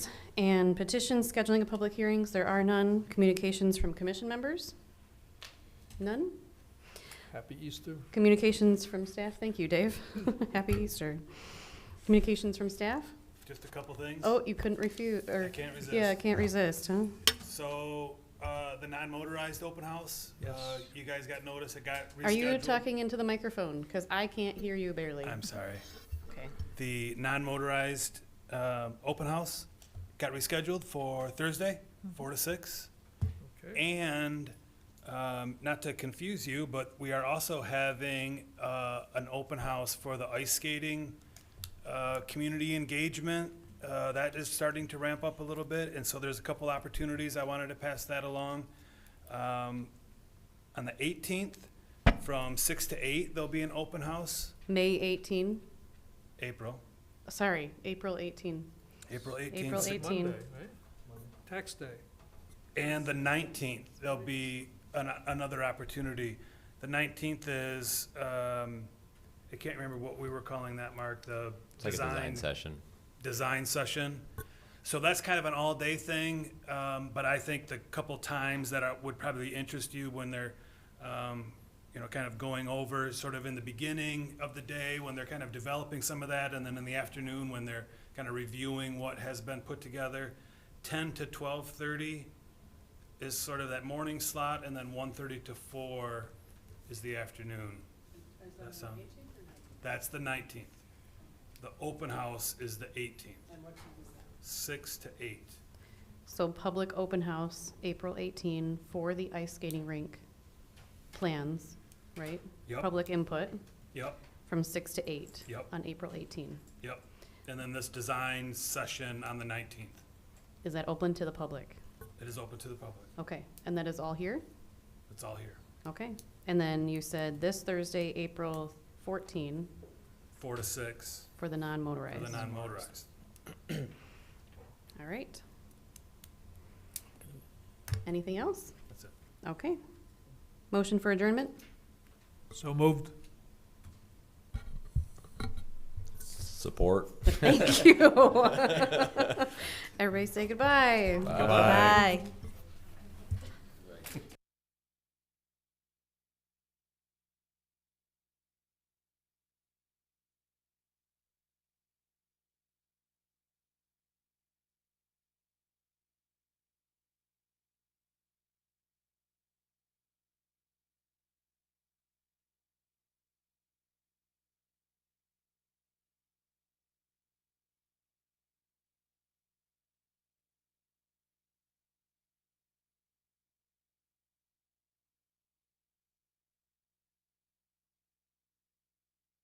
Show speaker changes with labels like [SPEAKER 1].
[SPEAKER 1] And petitions, scheduling of public hearings, there are none. Communications from commission members? None.
[SPEAKER 2] Happy Easter.
[SPEAKER 1] Communications from staff, thank you, Dave. Happy Easter. Communications from staff?
[SPEAKER 3] Just a couple things.
[SPEAKER 1] Oh, you couldn't refuse,
[SPEAKER 3] I
[SPEAKER 1] or,
[SPEAKER 3] can't resist.
[SPEAKER 1] yeah, can't resist, huh?
[SPEAKER 3] So, uh, the non-motorized open house, uh,
[SPEAKER 2] Yes.
[SPEAKER 3] you guys got notice, it got rescheduled.
[SPEAKER 1] Are you talking into the microphone? Because I can't hear you barely.
[SPEAKER 3] I'm sorry.
[SPEAKER 1] Okay.
[SPEAKER 3] The non-motorized, um, open house got rescheduled for Thursday,
[SPEAKER 1] Mm-hmm.
[SPEAKER 3] four to six.
[SPEAKER 2] Okay.
[SPEAKER 3] And, um, not to confuse you, but we are also having, uh, an open house for the ice skating, uh, community engagement. Uh, that is starting to ramp up a little bit, and so there's a couple opportunities. I wanted to pass that along. Um, on the eighteenth, from six to eight, there'll be an open house,
[SPEAKER 1] May 18,
[SPEAKER 3] April,
[SPEAKER 1] sorry, April 18.
[SPEAKER 3] April eighteenth.
[SPEAKER 1] April
[SPEAKER 2] It's a
[SPEAKER 1] 18.
[SPEAKER 2] Monday, right? Tax day.
[SPEAKER 3] And the nineteenth, there'll be an, another opportunity. The nineteenth is, um, I can't remember what we were calling that, Mark, the
[SPEAKER 4] It's like a design
[SPEAKER 3] design,
[SPEAKER 4] session.
[SPEAKER 3] design session. So that's kind of an all-day thing, um, but I think the couple times that are, would probably interest you when they're, um, you know, kind of going over, sort of in the beginning of the day, when they're kind of developing some of that, and then in the afternoon, when they're kind of reviewing what has been put together. Ten to twelve-thirty is sort of that morning slot, and then one-thirty to four is the afternoon. That sound- That's the nineteenth. The open house is the eighteenth. And what time is that? Six to eight.
[SPEAKER 1] So public open house, April 18, for the ice skating rink plans, right?
[SPEAKER 3] Yep,
[SPEAKER 1] Public input
[SPEAKER 3] yep,
[SPEAKER 1] from 6 to 8
[SPEAKER 3] yep,
[SPEAKER 1] on April 18.
[SPEAKER 3] yep. And then this design session on the nineteenth.
[SPEAKER 1] Is that open to the public?
[SPEAKER 3] It is open to the public.
[SPEAKER 1] Okay, and that is all here?
[SPEAKER 3] It's all here.
[SPEAKER 1] Okay. And then you said this Thursday, April 14,
[SPEAKER 3] Four to six
[SPEAKER 1] for the
[SPEAKER 3] for the
[SPEAKER 1] non-motorized.
[SPEAKER 3] non-motorized.
[SPEAKER 1] All right. Anything else?
[SPEAKER 3] That's it.
[SPEAKER 1] Okay. Motion for adjournment?
[SPEAKER 2] So moved.
[SPEAKER 4] Support.
[SPEAKER 1] Thank you. Everybody say goodbye.
[SPEAKER 4] Bye.
[SPEAKER 1] Bye.